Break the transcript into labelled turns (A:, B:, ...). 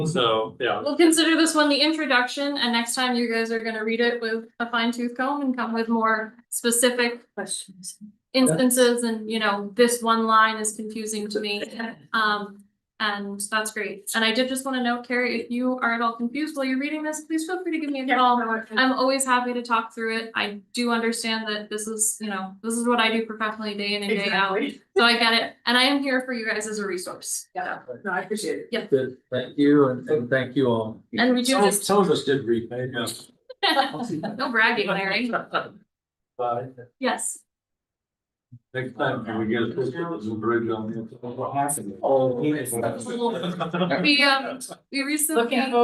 A: So, yeah,
B: We'll consider this one the introduction, and next time you guys are gonna read it with a fine tooth comb and come with more specific
C: Questions.
B: instances, and you know, this one line is confusing to me. Um, and that's great, and I did just wanna note, Carrie, if you are at all confused while you're reading this, please feel free to give me a call. I'm always happy to talk through it, I do understand that this is, you know, this is what I do professionally day in and day out,
C: Exactly.
B: so I get it, and I am here for you guys as a resource.
C: Yeah, no, I appreciate it.
D: Good, thank you, and, and thank you all.
B: And we do
D: Some,
B: this,
D: some of us did repay, yes.
B: no bragging, Larry,
A: but
B: yes.
A: next time, can we get a picture of the bridge on the?
D: Oh, yes.
B: We, um, we recently.
C: Looking